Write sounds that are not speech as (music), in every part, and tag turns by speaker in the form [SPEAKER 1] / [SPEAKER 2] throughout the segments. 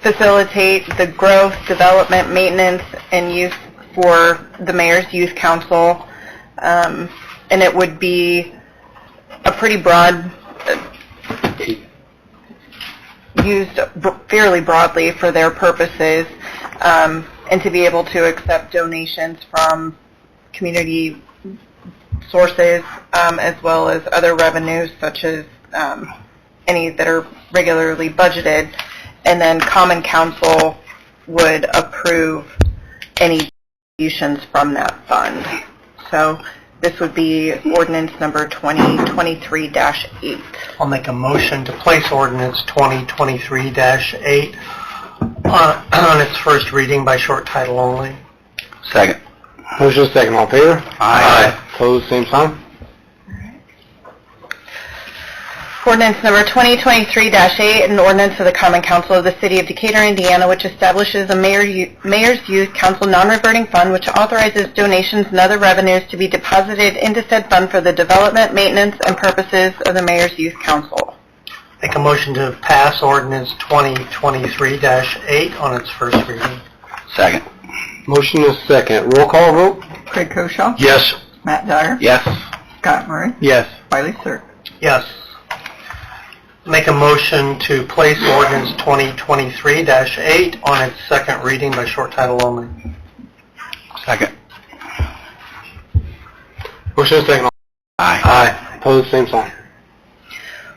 [SPEAKER 1] facilitate the growth, development, maintenance, and use for the mayor's youth council. Um, And it would be a pretty broad, uh, used b- fairly broadly for their purposes, um, and to be able to accept donations from community sources, um, as well as other revenues such as um, any that are regularly budgeted. And then common council would approve any distributions from that fund. So this would be ordinance number 2023-8.
[SPEAKER 2] I'll make a motion to place ordinance 2023-8 on (clears throat) on its first reading by short title only.
[SPEAKER 3] Second.
[SPEAKER 4] Motion second, all in favor?
[SPEAKER 3] Aye.
[SPEAKER 4] Pose same sign.
[SPEAKER 1] Ordinance number 2023-8, an ordinance of the Common Council of the City of Decatur, Indiana, which establishes a mayor you- Mayor's Youth Council non-reverting fund, which authorizes donations and other revenues to be deposited into said fund for the development, maintenance, and purposes of the Mayor's Youth Council.
[SPEAKER 2] Make a motion to pass ordinance 2023-8 on its first reading.
[SPEAKER 3] Second.
[SPEAKER 4] Motion is second, roll call vote?
[SPEAKER 1] Craig Koshaw.
[SPEAKER 3] Yes.
[SPEAKER 1] Matt Dyer.
[SPEAKER 3] Yes.
[SPEAKER 1] Scott Murray.
[SPEAKER 4] Yes.
[SPEAKER 1] Wiley Sir.
[SPEAKER 2] Yes. Make a motion to place ordinance 2023-8 on its second reading by short title only.
[SPEAKER 3] Second.
[SPEAKER 4] Motion is second, all
[SPEAKER 3] Aye.
[SPEAKER 4] Aye. Pose same sign.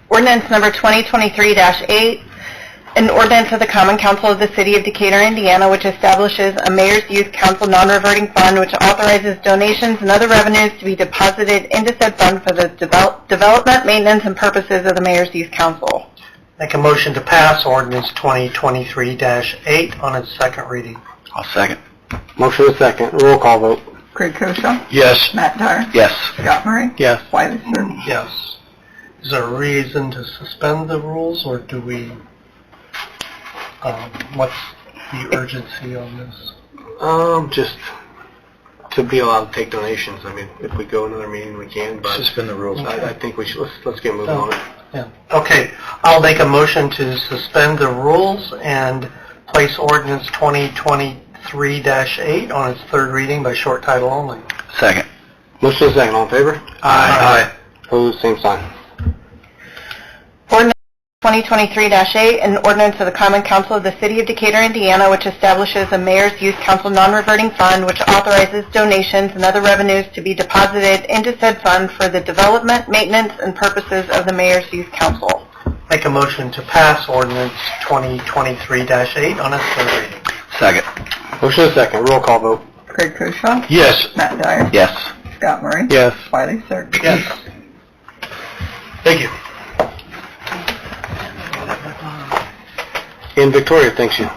[SPEAKER 1] Ordinance number 2023-8, an ordinance of the Common Council of the City of Decatur, Indiana, which establishes a Mayor's Youth Council non-reverting fund, which authorizes donations and other revenues to be deposited into said fund for the devel- development, maintenance, and purposes of the Mayor's Youth Council.
[SPEAKER 2] Make a motion to pass ordinance 2023-8 on its second reading.
[SPEAKER 3] I'll second.
[SPEAKER 4] Motion is second, roll call vote?
[SPEAKER 1] Craig Koshaw.
[SPEAKER 3] Yes.
[SPEAKER 1] Matt Dyer.
[SPEAKER 3] Yes.
[SPEAKER 1] Scott Murray.
[SPEAKER 4] Yes.
[SPEAKER 1] Wiley Sir.
[SPEAKER 2] Yes. Is there a reason to suspend the rules, or do we, um, what's the urgency on this?
[SPEAKER 4] Um, just to be allowed to take donations, I mean, if we go another meeting, we can, but. Suspend the rules. I, I think we should, let's, let's get moving on it.
[SPEAKER 2] Yeah. Okay, I'll make a motion to suspend the rules and place ordinance 2023-8 on its third reading by short title only.
[SPEAKER 3] Second.
[SPEAKER 4] Motion is second, all in favor?
[SPEAKER 3] Aye.
[SPEAKER 4] Pose same sign.
[SPEAKER 1] Ordinance 2023-8, an ordinance of the Common Council of the City of Decatur, Indiana, which establishes a Mayor's Youth Council non-reverting fund, which authorizes donations and other revenues to be deposited into said fund for the development, maintenance, and purposes of the Mayor's Youth Council.
[SPEAKER 2] Make a motion to pass ordinance 2023-8 on its third reading.
[SPEAKER 3] Second.
[SPEAKER 4] Motion is second, roll call vote?
[SPEAKER 1] Craig Koshaw.
[SPEAKER 4] Yes.
[SPEAKER 1] Matt Dyer.
[SPEAKER 3] Yes.
[SPEAKER 1] Scott Murray.
[SPEAKER 4] Yes.
[SPEAKER 1] Wiley Sir.
[SPEAKER 2] Yes. Thank you.
[SPEAKER 4] And Victoria thanks you.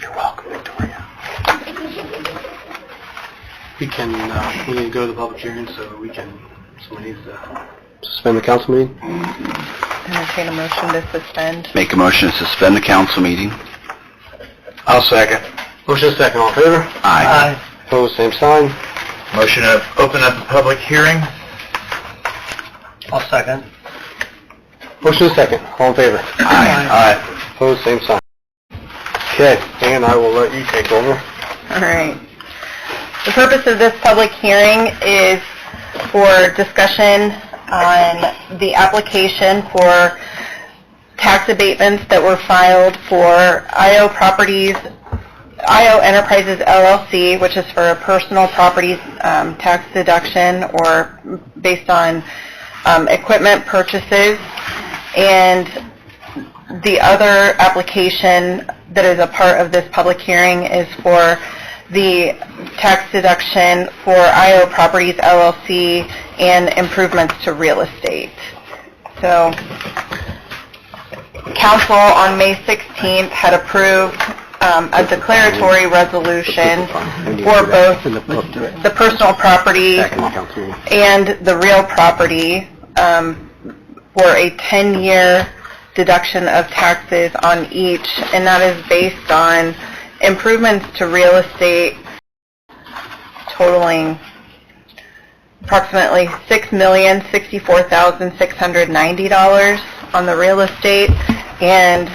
[SPEAKER 4] You're welcome, Victoria. We can, uh, we need to go to the public hearing, so we can, uh, somebody needs to... Suspend the council meeting?
[SPEAKER 1] Entertain a motion to suspend.
[SPEAKER 3] Make a motion to suspend the council meeting.
[SPEAKER 4] I'll second. Motion second, all in favor?
[SPEAKER 3] Aye.
[SPEAKER 4] Opposed, same sign.
[SPEAKER 3] Motion to open up the public hearing.
[SPEAKER 2] I'll second.
[SPEAKER 4] Motion second, all in favor?
[SPEAKER 3] Aye.
[SPEAKER 4] Opposed, same sign. Okay, and I will let you take over.
[SPEAKER 1] All right. The purpose of this public hearing is for discussion on the application for tax abatements that were filed for IO Properties, IO Enterprises LLC, which is for a personal property um, tax deduction or based on um, equipment purchases. And the other application that is a part of this public hearing is for the tax deduction for IO Properties LLC and improvements to real estate. So, council on May 16th had approved um, a declaratory resolution for both the personal property and the real property um, for a 10-year deduction of taxes on each, and that is based on improvements to real estate totaling approximately $6,064,690 on the real estate, and